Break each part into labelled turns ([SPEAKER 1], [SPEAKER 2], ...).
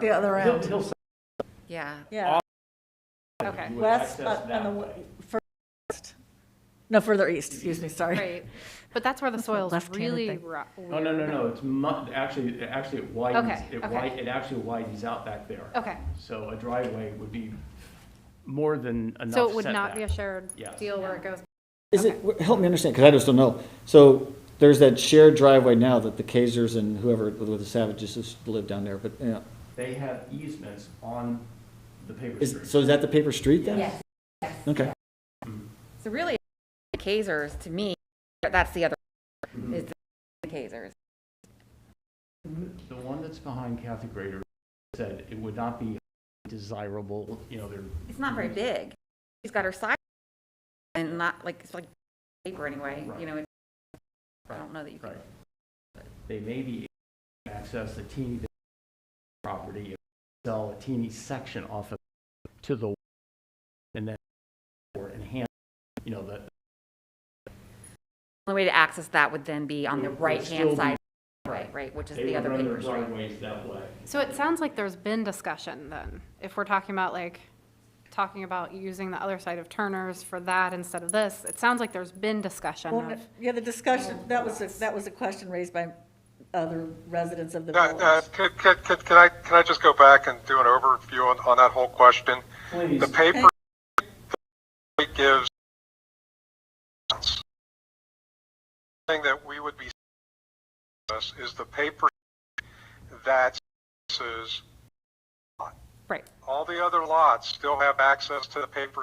[SPEAKER 1] the other
[SPEAKER 2] He'll,
[SPEAKER 1] end.
[SPEAKER 2] he'll say
[SPEAKER 3] Yeah,
[SPEAKER 1] Yeah,
[SPEAKER 3] okay,
[SPEAKER 2] you would
[SPEAKER 1] west,
[SPEAKER 2] access
[SPEAKER 1] uh, and the,
[SPEAKER 2] that
[SPEAKER 1] w-
[SPEAKER 2] way.
[SPEAKER 1] further east. No, further east, excuse me, sorry.
[SPEAKER 3] great. But that's where the soil's
[SPEAKER 1] left-handed
[SPEAKER 3] really
[SPEAKER 1] thing.
[SPEAKER 3] ru-
[SPEAKER 2] No, no, no,
[SPEAKER 3] weird.
[SPEAKER 2] no, it's mu, actually, it actually it widens,
[SPEAKER 3] Okay,
[SPEAKER 2] it
[SPEAKER 3] okay.
[SPEAKER 2] wide, it actually widens out back there.
[SPEAKER 3] Okay,
[SPEAKER 2] So a driveway would be more than enough
[SPEAKER 3] so it would not be a
[SPEAKER 2] setback.
[SPEAKER 3] shared
[SPEAKER 2] Yes.
[SPEAKER 3] deal where it goes,
[SPEAKER 4] Is it, help me understand, because I just don't know. So there's that shared driveway now that the Kazers and whoever, with the Savages just live down there, but, you know,
[SPEAKER 2] They have easements on the paper
[SPEAKER 4] is,
[SPEAKER 2] street.
[SPEAKER 4] so is that the paper street then?
[SPEAKER 5] Yes.
[SPEAKER 4] Okay.
[SPEAKER 5] So really, the Kazers, to me, that's the other,
[SPEAKER 2] Mhm.
[SPEAKER 5] is the Kazers.
[SPEAKER 2] The one that's behind Kathy Grader said it would not be desirable, you know, they're
[SPEAKER 5] It's not very big. She's got her side and not like, it's like paper anyway, you know? it- I don't know that you can.
[SPEAKER 2] Right. They may be able to access the teeny bit of property, if they sell a teeny section off of to the, and then, or enhance, you know, the.
[SPEAKER 5] The only way to access that would then be on the
[SPEAKER 2] It would
[SPEAKER 5] right-hand
[SPEAKER 2] still be-
[SPEAKER 5] side, right, right, which is the other paper street.
[SPEAKER 2] driveways that way.
[SPEAKER 3] So it sounds like there's been discussion then, if we're talking about like, talking about using the other side of Turner's for that instead of this, it sounds like there's been discussion
[SPEAKER 1] Well, no-
[SPEAKER 3] of,
[SPEAKER 1] Yeah, the discussion, that was, a- that was a question raised by other residents of the
[SPEAKER 6] Uh, uh,
[SPEAKER 1] village.
[SPEAKER 6] Could, could, could could I, can I just go back and do an overview on, on that whole question?
[SPEAKER 2] Please,
[SPEAKER 6] The paper gives thing that we would be us is the paper that is
[SPEAKER 3] right,
[SPEAKER 6] all the other lots still have access to the paper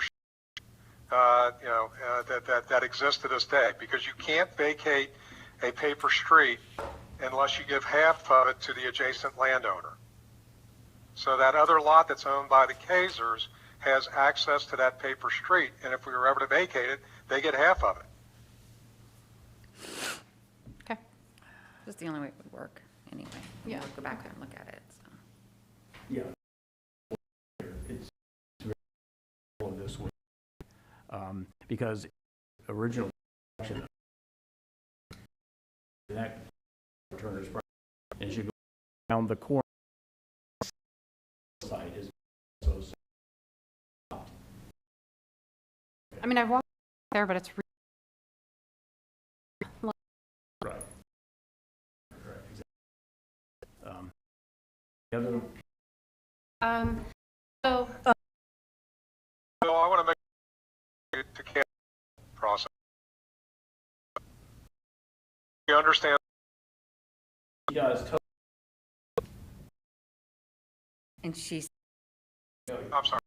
[SPEAKER 6] uh, you know, uh, that, that, that exist to this day, because you can't vacate a paper street unless you give half of it to the adjacent landowner. So that other lot that's owned by the Kazers has access to that paper street, and if we were ever to vacate it, they get half of it.
[SPEAKER 3] okay.
[SPEAKER 5] That's the only way it would work, anyway. You
[SPEAKER 3] Yeah.
[SPEAKER 5] would Go back there and look at it, so.
[SPEAKER 2] yeah. It's it's all this way. Um, because original section that Turner's property, and should go around the corner side is so
[SPEAKER 3] I mean, I've walked there, but it's, re-
[SPEAKER 2] Right. Right, exactly. Um, The other,
[SPEAKER 3] um, so,
[SPEAKER 6] So I want to make to cancel the process. You understand
[SPEAKER 2] he does, to-
[SPEAKER 5] And she's,
[SPEAKER 6] I'm sorry.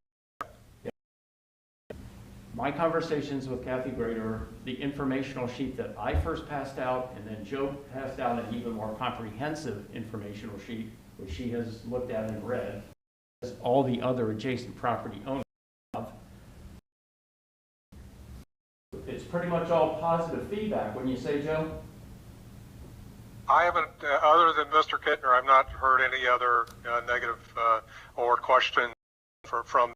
[SPEAKER 2] my conversations with Kathy Grader, the informational sheet that I first passed out, and then Joe passed out an even more comprehensive informational sheet, which she has looked at and read, as all the other adjacent property owners have. It's pretty much all positive feedback, wouldn't you say, Joe?
[SPEAKER 6] I haven't, uh, other than Mr. Kittner, I've not heard any other uh, negative uh, or question for, from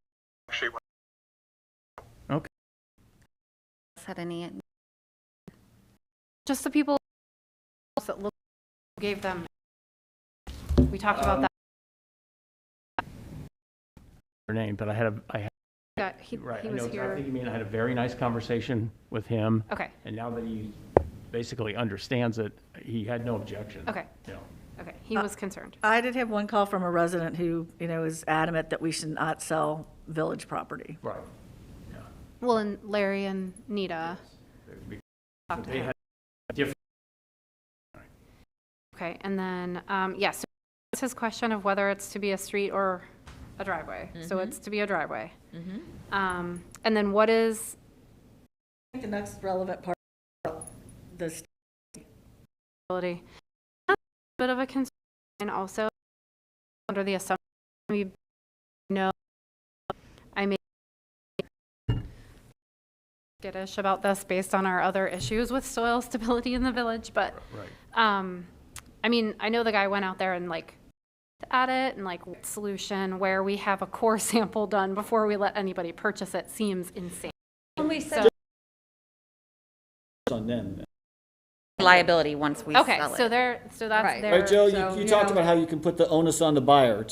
[SPEAKER 6] she.
[SPEAKER 5] had any,
[SPEAKER 3] just the people that look, gave them, we talked
[SPEAKER 2] Um,
[SPEAKER 3] about that,
[SPEAKER 2] Her name, but I had a, I had
[SPEAKER 3] that he,
[SPEAKER 2] Right,
[SPEAKER 3] he
[SPEAKER 2] I know
[SPEAKER 3] was
[SPEAKER 2] exactly what
[SPEAKER 3] here.
[SPEAKER 2] you mean. I had a very nice conversation with him,
[SPEAKER 3] Okay,
[SPEAKER 2] and now that he basically understands it, he had no objection.
[SPEAKER 3] okay,
[SPEAKER 2] You know,
[SPEAKER 3] okay, he was concerned.
[SPEAKER 1] I did have one call from a resident who, you know, is adamant that we should not sell village property.
[SPEAKER 2] right. yeah.
[SPEAKER 3] Well, and Larry and Nita
[SPEAKER 2] They-
[SPEAKER 3] talked to
[SPEAKER 2] They
[SPEAKER 3] him.
[SPEAKER 2] had different,
[SPEAKER 3] Okay, and then, um, yes, it's his question of whether it's to be a street or a driveway. So it's to be a driveway. Um, and then what is,
[SPEAKER 1] I think the next relevant part, about this,
[SPEAKER 3] ability? That's a bit of a concern and also under the assumption we know, I may skittish about this based on our other issues with soil stability in the village, but
[SPEAKER 2] right.
[SPEAKER 3] Um, I mean, I know the guy went out there and like looked at it and like what solution where we have a core sample done before we let anybody purchase it seems insane.
[SPEAKER 5] we
[SPEAKER 3] said-
[SPEAKER 4] It's on them.
[SPEAKER 5] liability once we sell it.
[SPEAKER 3] Okay, so there, so that's
[SPEAKER 7] Right.
[SPEAKER 3] there.
[SPEAKER 4] Right, Joe,
[SPEAKER 3] so,
[SPEAKER 4] you, you talked
[SPEAKER 3] know.
[SPEAKER 4] about how you can put the onus on the buyer